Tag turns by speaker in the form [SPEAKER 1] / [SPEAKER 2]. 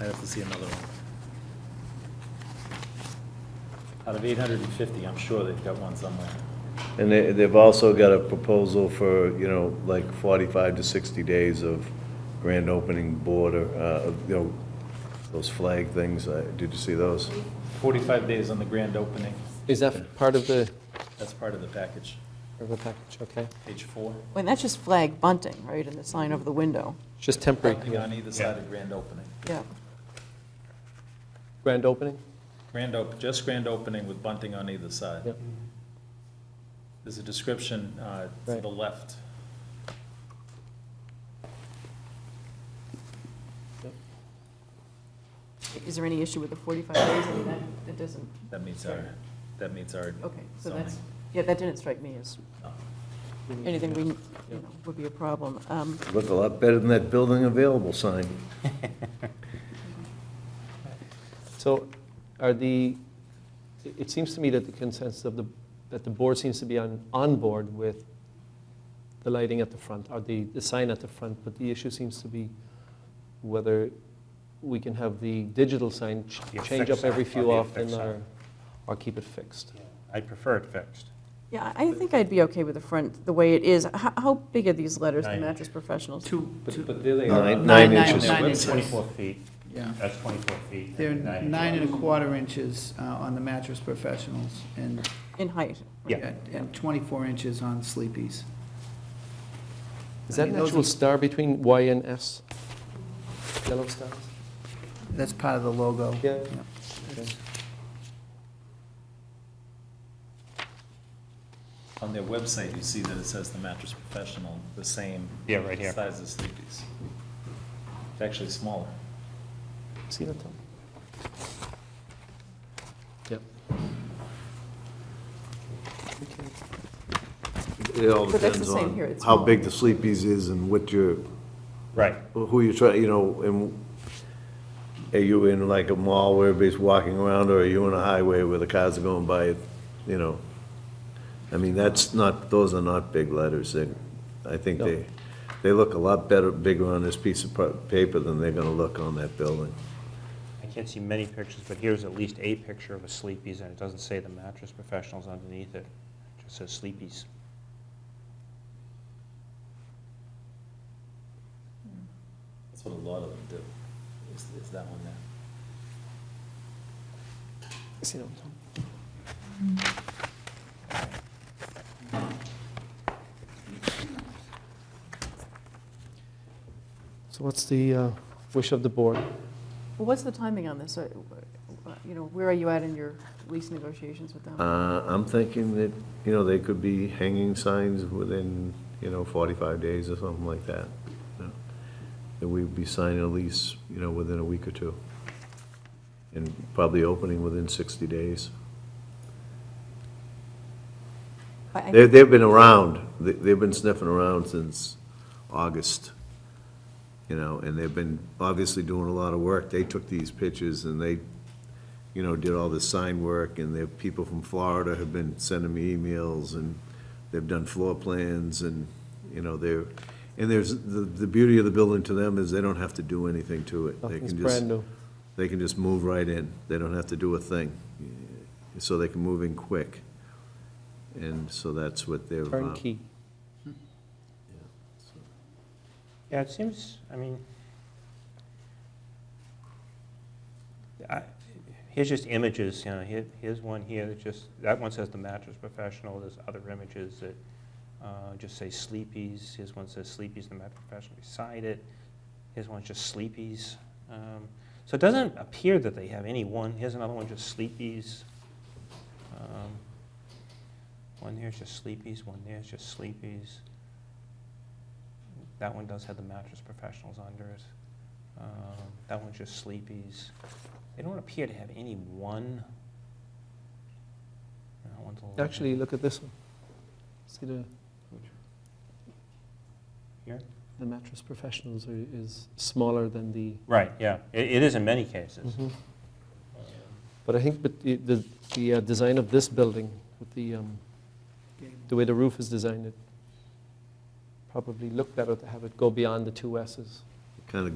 [SPEAKER 1] I'd have to see another one. Out of eight hundred and fifty, I'm sure they've got one somewhere.
[SPEAKER 2] And they, they've also got a proposal for, you know, like forty-five to sixty days of grand opening border, uh, of, you know, those flag things, Uh, did you see those?
[SPEAKER 1] Forty-five days on the grand opening,
[SPEAKER 3] Is that part of the,
[SPEAKER 1] that's part of the package,
[SPEAKER 3] of the package, okay?
[SPEAKER 1] page four.
[SPEAKER 4] Well, that's just flag bunting, right, and the sign over the window,
[SPEAKER 3] Just temporary,
[SPEAKER 1] Something on either side of grand opening.
[SPEAKER 4] yeah.
[SPEAKER 3] grand opening?
[SPEAKER 1] Grand op, just grand opening with bunting on either side.
[SPEAKER 3] Yep.
[SPEAKER 1] There's a description uh, to
[SPEAKER 3] Right.
[SPEAKER 1] the left.
[SPEAKER 4] Is there any issue with the 45 days? I mean, that, that doesn't,
[SPEAKER 1] That meets our, that meets our,
[SPEAKER 4] okay, so
[SPEAKER 1] Zoning.
[SPEAKER 4] that's, yeah, that didn't strike me as
[SPEAKER 1] No.
[SPEAKER 4] anything we, you know, would be a problem. Um,
[SPEAKER 2] Look a lot better than that building available sign.
[SPEAKER 3] So are the, it- it seems to me that the consensus of the, that the board seems to be on, on board with the lighting at the front, or the, the sign at the front, but the issue seems to be whether we can have the digital sign ch-
[SPEAKER 5] The
[SPEAKER 3] change
[SPEAKER 5] affixed
[SPEAKER 3] up every
[SPEAKER 5] sign, or
[SPEAKER 3] few
[SPEAKER 5] the
[SPEAKER 3] often,
[SPEAKER 5] affixed sign.
[SPEAKER 3] or, or keep it fixed.
[SPEAKER 5] I prefer it fixed.
[SPEAKER 4] Yeah, I think I'd be okay with the front, the way it is. How, how big are these letters, the
[SPEAKER 5] Nine.
[SPEAKER 4] mattress professionals?
[SPEAKER 6] Two,
[SPEAKER 1] But,
[SPEAKER 6] two,
[SPEAKER 1] but there they are.
[SPEAKER 2] Nine-
[SPEAKER 1] on
[SPEAKER 2] nine
[SPEAKER 1] their
[SPEAKER 2] inches.
[SPEAKER 1] website.
[SPEAKER 6] Nine inches.
[SPEAKER 5] Twenty-four feet,
[SPEAKER 6] yeah.
[SPEAKER 5] that's twenty-four feet.
[SPEAKER 6] They're
[SPEAKER 5] and
[SPEAKER 6] nine and a quarter inches uh, on the mattress professionals and,
[SPEAKER 4] In height?
[SPEAKER 5] Yeah.
[SPEAKER 6] and 24 inches on sleepies.
[SPEAKER 3] Is
[SPEAKER 6] I
[SPEAKER 3] that
[SPEAKER 6] mean,
[SPEAKER 3] an
[SPEAKER 6] those
[SPEAKER 3] actual
[SPEAKER 6] are-
[SPEAKER 3] star between Y and S? Yellow stars?
[SPEAKER 6] That's part of the logo.
[SPEAKER 3] Yeah.
[SPEAKER 6] Yeah.
[SPEAKER 3] Okay.
[SPEAKER 1] On their website, you see that it says the mattress professional, the same.
[SPEAKER 5] Yeah, right here.
[SPEAKER 1] Size as Sleepy's. It's actually smaller.
[SPEAKER 3] See that, Tom? Yep. Okay.
[SPEAKER 2] It all
[SPEAKER 4] But that's the
[SPEAKER 2] depends
[SPEAKER 4] same here,
[SPEAKER 2] on
[SPEAKER 4] it's
[SPEAKER 2] how
[SPEAKER 4] small.
[SPEAKER 2] big the Sleepy's is and what your,
[SPEAKER 5] Right,
[SPEAKER 2] who you try, you know, and are you in like a mall where everybody's walking around, or are you on a highway where the cars are going by, you know? I mean, that's not, those are not big letters, they, I think
[SPEAKER 3] No.
[SPEAKER 2] they, they look a lot better, bigger on this piece of pa- paper than they're gonna look on that building.
[SPEAKER 5] I can't see many pictures, but here's at least a picture of a Sleepy's, and it doesn't say the mattress professionals underneath it, It just says Sleepy's.
[SPEAKER 1] That's what a lot of them do, is, is that one there.
[SPEAKER 3] See that, Tom? So what's the uh, wish of the board?
[SPEAKER 4] Well, what's the timing on this? Uh, You know, where are you at in your lease negotiations with them?
[SPEAKER 2] Uh, I'm thinking that, you know, they could be hanging signs within, you know, forty-five days or something like that. you know. That we'd be signing a lease, you know, within a week or two. And probably opening within sixty days.
[SPEAKER 4] I- I
[SPEAKER 2] They, they've been around, They- they've been sniffing around since August, you know, and they've been obviously doing a lot of work. They took these pictures and they, you know, did all the sign work, and their people from Florida have been sending me emails, and they've done floor plans, and, you know, they're, and there's, the, the beauty of the building to them is they don't have to do anything to it. They
[SPEAKER 3] Nothing's
[SPEAKER 2] can just
[SPEAKER 3] brand new.
[SPEAKER 2] they can just move right in. They don't have to do a thing. So they can move in quick. And so that's what they're.
[SPEAKER 3] Turnkey.
[SPEAKER 5] Yeah, it seems, I mean, I- here's just images, you know, here, here's one here that just, that one says the mattress professional, there's other images that uh, just say Sleepy's, here's one says Sleepy's, the mattress professional beside it, here's one just Sleepy's. Um, So it doesn't appear that they have any one, here's another one just Sleepy's. Um, One there's just Sleepy's, one there's just Sleepy's. That one does have the mattress professionals under it. Um, That one's just sleepies. They don't appear to have any one. Uh, one's a little-
[SPEAKER 3] Actually, look at this one. See the,
[SPEAKER 5] Here?
[SPEAKER 3] the mattress professionals are- is smaller than the Mhm.
[SPEAKER 5] Right, yeah. It it is in many cases.
[SPEAKER 3] But I think but the, the, the uh, design of this building, with the, um, the way the roof is designed, it probably looked better to have it go beyond the two S's.